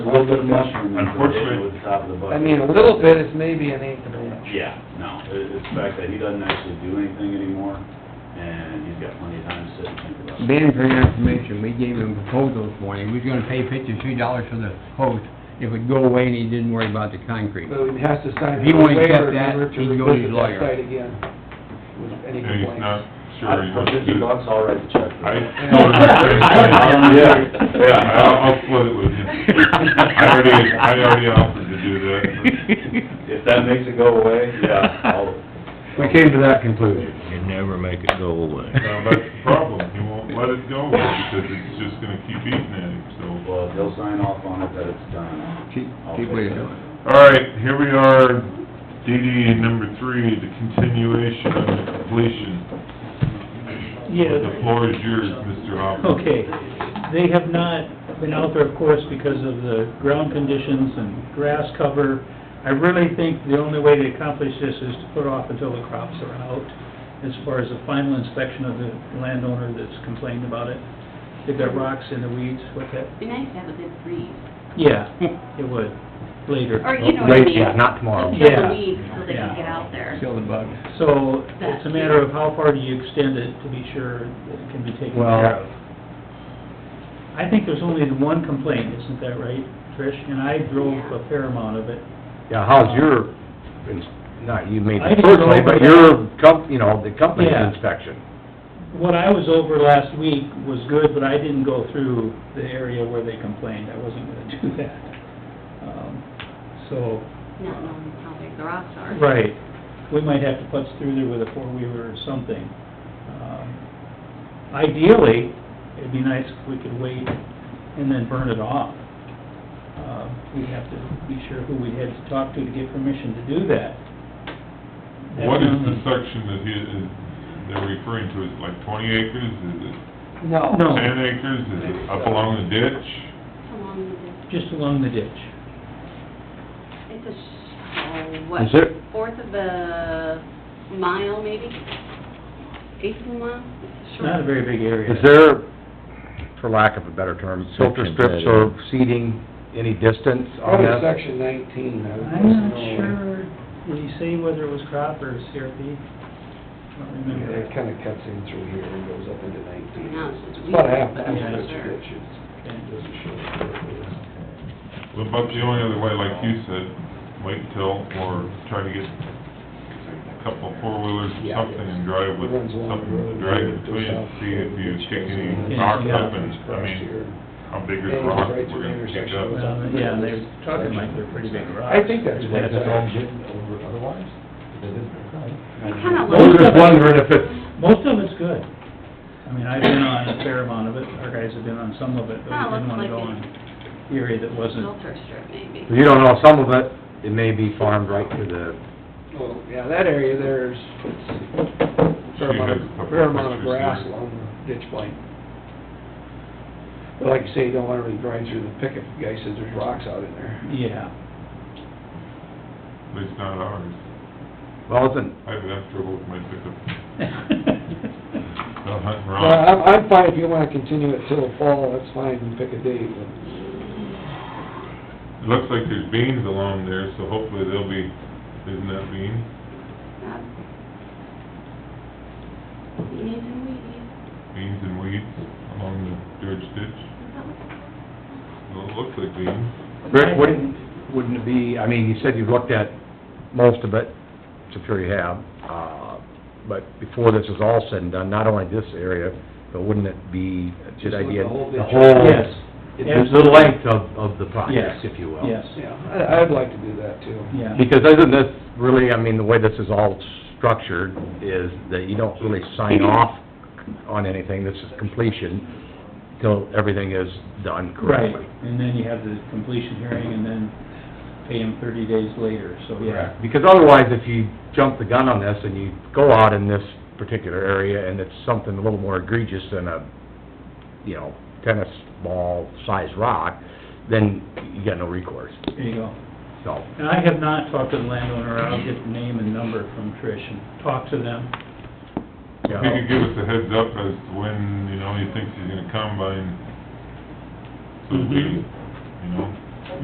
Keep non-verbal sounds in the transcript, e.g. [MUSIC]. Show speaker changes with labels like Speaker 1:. Speaker 1: little bit of mushroom in
Speaker 2: Unfortunately-
Speaker 1: with the top of the bucket.
Speaker 3: I mean, a little bit is maybe an eighth of an inch.
Speaker 1: Yeah, no, it- it's the fact that he doesn't actually do anything anymore, and he's got plenty of time to sit and think about it.
Speaker 4: Ben, for your information, we gave him a proposal this morning, he was gonna pay fifty-three dollars for the hose, it would go away and he didn't worry about the concrete.
Speaker 3: [LAUGHS] But we'd have to sign
Speaker 4: If he
Speaker 3: a
Speaker 4: wanted to cut
Speaker 3: waiver in
Speaker 4: that,
Speaker 3: order to
Speaker 4: he'd go to his
Speaker 3: revisit that
Speaker 4: lawyer.
Speaker 3: site again with any
Speaker 2: And he's not
Speaker 3: complaints.
Speaker 2: sure he
Speaker 1: For
Speaker 2: wants to
Speaker 1: fifty
Speaker 2: do that.
Speaker 1: bucks, I'll write the check. for
Speaker 2: I,
Speaker 1: that. [LAUGHS]
Speaker 2: no, I'm
Speaker 1: Yeah.
Speaker 2: saying, yeah, I'll, I'll split it with you. I already, I already offered to do that.
Speaker 1: If that makes it go away, yeah, I'll,
Speaker 4: We came to that conclusion.
Speaker 5: You never make it go away.
Speaker 2: but- Now, uh, that's the problem, he won't let it go because it's just gonna keep eating at him, so.
Speaker 1: well, they'll sign off on it that it's done.
Speaker 4: Keep,
Speaker 1: I'll
Speaker 4: keep
Speaker 1: fix
Speaker 4: with it.
Speaker 1: it.
Speaker 2: All right, here we are, DD number three, the continuation of the completion. The
Speaker 6: Yeah,
Speaker 2: floor is yours, Mr. Hoffman.
Speaker 6: okay. They have not been out there, of course, because of the ground conditions and grass cover. I really think the only way to accomplish this is to put off until the crops are out, as far as the final inspection of the landowner that's complained about it. They've got rocks in the weeds with it.
Speaker 7: Be nice to have a good breeze,
Speaker 6: Yeah, it would, later.
Speaker 7: or you know what I mean?
Speaker 4: yeah, not tomorrow.
Speaker 7: Just kill
Speaker 6: Yeah.
Speaker 7: the weeds so they
Speaker 6: Yeah.
Speaker 7: can get out there.
Speaker 4: Kill the bug.
Speaker 6: So it's a matter of how far do you extend it to be sure that it can be taken care of. I think there's only the one complaint, isn't that right, Trish? And I drove a fair amount of it.
Speaker 8: Yeah, how's your, ins- not you maybe
Speaker 6: I didn't go
Speaker 8: personally,
Speaker 6: over
Speaker 8: but
Speaker 6: that.
Speaker 8: your comp, you know, the company's
Speaker 6: Yeah.
Speaker 8: inspection?
Speaker 6: What I was over last week was good, but I didn't go through the area where they complained. I wasn't gonna do [LAUGHS] that. Um, So,
Speaker 7: Not knowing how big the rocks are.
Speaker 6: right, we might have to putz through there with a four-wheeler or something. Um, Ideally, it'd be nice if we could wait and then burn it off. Uh, We'd have to be sure who we had to talk to to get permission to do that.
Speaker 2: What is the
Speaker 6: That's-
Speaker 2: section that he, is- they're referring to, is it like twenty acres, is it
Speaker 3: No.
Speaker 6: No.
Speaker 2: ten acres, is it up along the ditch?
Speaker 7: How long is it?
Speaker 6: Just along the ditch.
Speaker 7: It's a, sh- oh, what?
Speaker 8: Is it-
Speaker 7: Fourth of a mile, maybe? Eighth of a mile? It's
Speaker 6: It's
Speaker 7: short.
Speaker 6: not a very big area.
Speaker 8: Is there, for lack of a better term, uh, filter
Speaker 5: Section uh,
Speaker 8: strips
Speaker 5: better.
Speaker 8: or seating any distance on
Speaker 3: Probably
Speaker 8: that?
Speaker 3: section nineteen, I would
Speaker 6: I'm not
Speaker 3: guess.
Speaker 6: sure, did he say whether it was crop or CRP? I don't
Speaker 3: Yeah,
Speaker 6: remember.
Speaker 3: it kinda cuts in through here and goes up into nineteen.
Speaker 7: No, it's just
Speaker 3: It's About
Speaker 7: weeds,
Speaker 3: half,
Speaker 7: but
Speaker 3: that's
Speaker 7: I'm
Speaker 6: yeah,
Speaker 7: not
Speaker 3: what
Speaker 7: sure.
Speaker 3: it is. It doesn't show it is.
Speaker 2: Well, about the only other way, like you said, wait till, or try to get a couple four-wheelers or
Speaker 3: Yeah.
Speaker 2: something and drive with
Speaker 3: Runs along
Speaker 2: something
Speaker 3: the
Speaker 2: to
Speaker 3: road,
Speaker 2: drag
Speaker 3: goes
Speaker 2: between,
Speaker 3: south,
Speaker 2: see if you
Speaker 3: goes
Speaker 2: kick
Speaker 3: south,
Speaker 2: any
Speaker 6: Yeah.
Speaker 2: rocks
Speaker 6: yeah.
Speaker 2: up and, I
Speaker 3: Across
Speaker 2: mean,
Speaker 3: here.
Speaker 2: how big is
Speaker 3: And
Speaker 2: rock we're
Speaker 3: right to the
Speaker 2: gonna kick
Speaker 3: intersection
Speaker 2: up?
Speaker 3: with-
Speaker 6: Well, yeah, they're talking like they're pretty big rocks.
Speaker 3: I think that's what
Speaker 6: That's
Speaker 3: that-
Speaker 6: all.
Speaker 8: over otherwise,
Speaker 7: It kinda
Speaker 8: I was
Speaker 7: looks
Speaker 8: just
Speaker 7: like-
Speaker 8: wondering if it's,
Speaker 6: Most of it's good. I mean, I've been on a fair amount of it, our guys have been on some of it, but
Speaker 7: Ah,
Speaker 6: we didn't
Speaker 7: looks
Speaker 6: wanna
Speaker 7: like
Speaker 6: go
Speaker 7: it.
Speaker 6: on the area that wasn't.
Speaker 7: Filter strip, maybe.
Speaker 8: you don't know, some of it, it may be farmed right to the
Speaker 3: Well, yeah, that area there's, it's fair
Speaker 2: She has
Speaker 3: amount,
Speaker 2: a couple
Speaker 3: of- fair amount of
Speaker 2: pictures
Speaker 3: grass
Speaker 2: there.
Speaker 3: along the ditch line. But like you say, you don't wanna really grind through the picket, the guy says there's rocks out in there.
Speaker 6: Yeah,
Speaker 2: At least not ours.
Speaker 8: Well, isn't,
Speaker 2: I've had trouble with my pickup,
Speaker 6: yeah.
Speaker 2: uh, hunting
Speaker 3: Well, I'm,
Speaker 2: rocks.
Speaker 3: I'm fine if you wanna continue it till fall, that's fine, you pick a date, but
Speaker 2: It looks like there's beans along there, so hopefully they'll be, isn't that bean?
Speaker 7: Uh, You need some weeds.
Speaker 2: Beans and weeds along the George ditch?
Speaker 7: Is that what-
Speaker 2: Well, it looks like beans.
Speaker 8: Rick, wouldn't, wouldn't it be, I mean, you said you've looked at most of it, which I'm sure you have, uh, but before this was all said and done, not only this area, but wouldn't it be a
Speaker 3: Just
Speaker 8: good
Speaker 3: look
Speaker 8: idea?
Speaker 3: the whole
Speaker 8: The
Speaker 3: ditch.
Speaker 8: whole,
Speaker 6: Yes.
Speaker 8: the- the length of, of the
Speaker 6: Yes.
Speaker 8: project, if you will.
Speaker 6: Yes,
Speaker 3: Yeah, I, I'd like to do that too.
Speaker 6: yeah.
Speaker 8: Because isn't this really, I mean, the way this is all structured is that you don't really sign off on anything, this is completion, till everything is done
Speaker 6: Right,
Speaker 8: correctly.
Speaker 6: and then you have the completion hearing and then pay him thirty days later, so yeah.
Speaker 8: Because otherwise, if you jump the gun on this and you go out in this particular area and it's something a little more egregious than a, you know, tennis ball-sized rock, then you got no recourse,
Speaker 6: There you go.
Speaker 8: so.
Speaker 6: And I have not talked to the landowner, I'll get the name and number from Trish and talk to them.
Speaker 8: you
Speaker 2: If
Speaker 8: know.
Speaker 2: he could give us a heads up as to when, you know, he thinks he's gonna combine, so we, you know,